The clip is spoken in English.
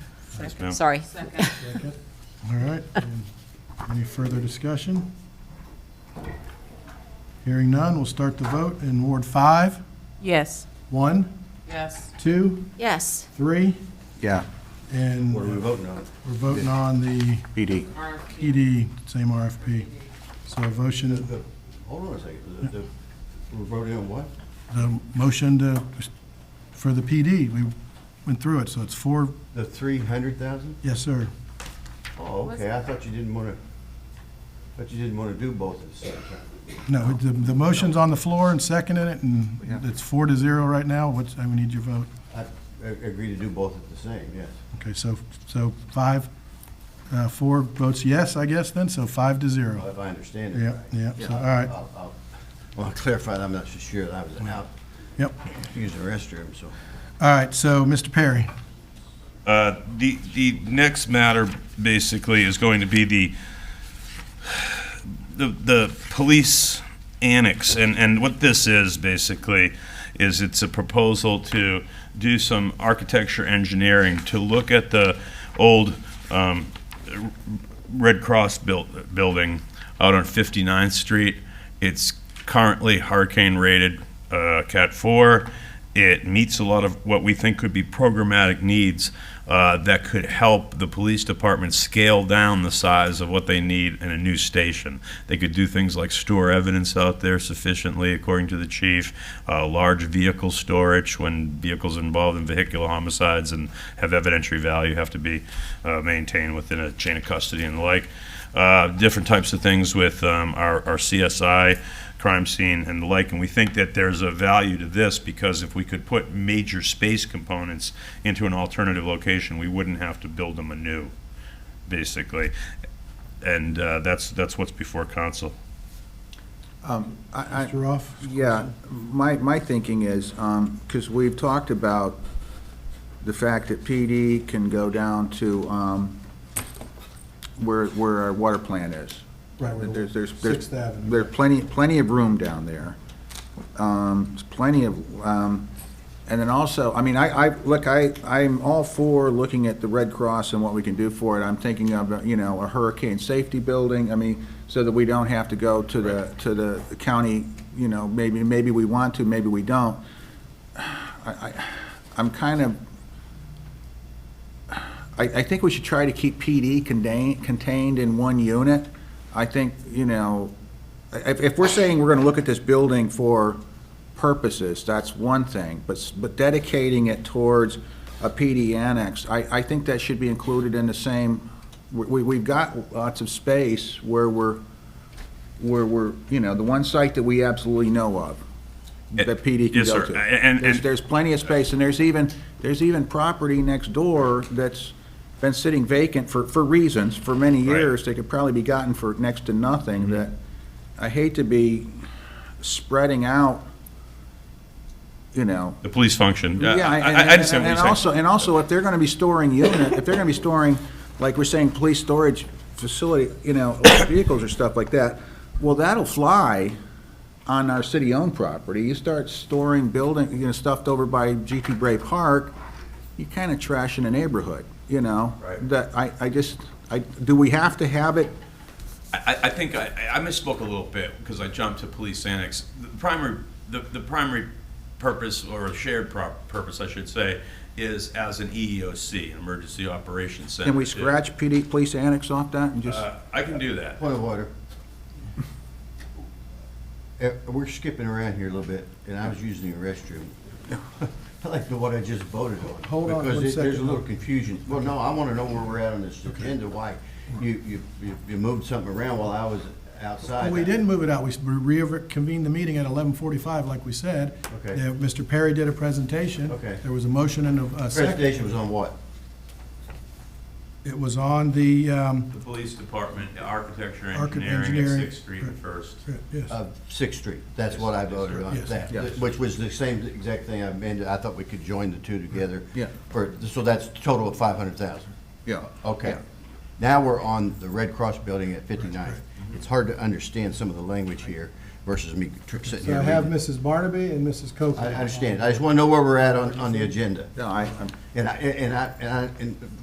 Yes, Second. ma'am. Sorry. Second. All right. and Any further discussion? Hearing none, we'll start the vote in Ward five. Yes. One, Yes. two, Yes. three, Yeah, and What are we we're voting on? voting on the PD. RFP. PD, same RFP. So a motion, The- the- Hold on a second. The- the- We're voting on what? the motion to, for the PD, we went through it, so it's four, The three hundred thousand? yes, sir. Oh, okay. I thought you didn't want to, thought you didn't want to do both at the same time. No, the, the motion's on the floor and seconding it, and it's four to zero right now. What's, I need your vote. I I agree to do both at the same, yes. Okay, so, so five, uh, four votes yes, I guess, then, so five to zero. If I understand it Yeah, right. yeah, so, all right. I'll- I'll- I want to clarify that I'm not so sure that I was out Yep. using the restroom, so. All right, so, Mr. Perry, Uh, The, the next matter basically is going to be the, the, the police annex. And, and what this is basically, is it's a proposal to do some architecture engineering, to look at the old um, Red Cross built, building out on 59th Street. It's currently hurricane rated uh, Cat 4. It meets a lot of what we think could be programmatic needs uh, that could help the police department scale down the size of what they need in a new station. They could do things like store evidence out there sufficiently, according to the chief, uh, large vehicle storage when vehicles involved in vehicular homicides and have evidentiary value have to be uh, maintained within a chain of custody and the like. Uh, different types of things with um, our, our CSI crime scene and the like. And we think that there's a value to this because if we could put major space components into an alternative location, we wouldn't have to build them anew, basically. And uh, that's, that's what's before council. I, I, Mr. Roth. yeah, my, my thinking is, um, because we've talked about the fact that PD can go down to, um, where, where our water plant is. Right, where the- There's, there's. there's- Sixth Avenue. There's plenty, plenty of room down there. Um, there's plenty of, um, and then also, I mean, I, I, look, I, I'm all for looking at the Red Cross and what we can do for it. I'm thinking of, you know, a hurricane safety building, I mean, so that we don't have to go to the, to the county, you know, maybe, maybe we want to, maybe we don't. I, I, I'm kind of, I, I think we should try to keep PD contained, contained in one unit. I think, you know, if, if we're saying we're gonna look at this building for purposes, that's one thing, but, s- but dedicating it towards a PD annex, I, I think that should be included in the same, we- we, we've got lots of space where we're, where we're, you know, the one site that we absolutely know of, that PD can Eh, Yes, go sir. to. And- There's- and- There's plenty of space, and there's even, there's even property next door that's been sitting vacant for, for reasons, for many Right. Mm-hmm. years. They could probably be gotten for next to nothing, that I hate to be spreading out, you know. The police function. Uh, I, and- I I understand what and- And you're saying. also, and also, if they're gonna be storing unit, if they're gonna be storing, like we're saying, police storage facility, you know, electric vehicles or stuff like that, well, that'll fly on our city-owned property. You start storing building, you know, stuffed over by GT Bray Park, you're kinda trashing a neighborhood, you know? Right. That, I, I just, I, do we have to have it? I, I think I, I misspoke a little bit because I jumped to police annex. The primary, the, the primary purpose or shared prop, purpose, I should say, is as an E EEOC, an emergency operations center. Can we to- scratch PD, police annex off that and just? Uh, I can do that. Point of order. Eh, We're skipping around here a little bit, and I was using the restroom. I like the what I just voted on. Hold on one Because it- there's a second. little confusion. Well, no, I want to know where we're at on this agenda, why you, you, you- you moved something around while I was outside. We didn't move it out, we s- we reconvened the meeting at eleven forty-five, like we said. Okay. Uh, Mr. Perry did a presentation. Okay. There was a motion and a- a second. Presentation was on what? It was on the, um, The police department, architecture, Archi- engineering at engineering, Sixth Street and right. First. yes. Of Sixth Street. That's what I voted on, Yes. that, Yes. which was the same exact thing I amended. I thought we could join the two together. Yeah. For, so that's a total of five hundred thousand. Yeah. Okay. Yeah. Now we're on the Red Cross building at 59th. Mm-hmm. It's hard to understand some of the language here versus me tr- sitting So here I have reading. Mrs. Barnaby and Mrs. Coker. I I understand. I just want to know where we're at on, on the agenda. No, I, I'm. And I, and I, and I, and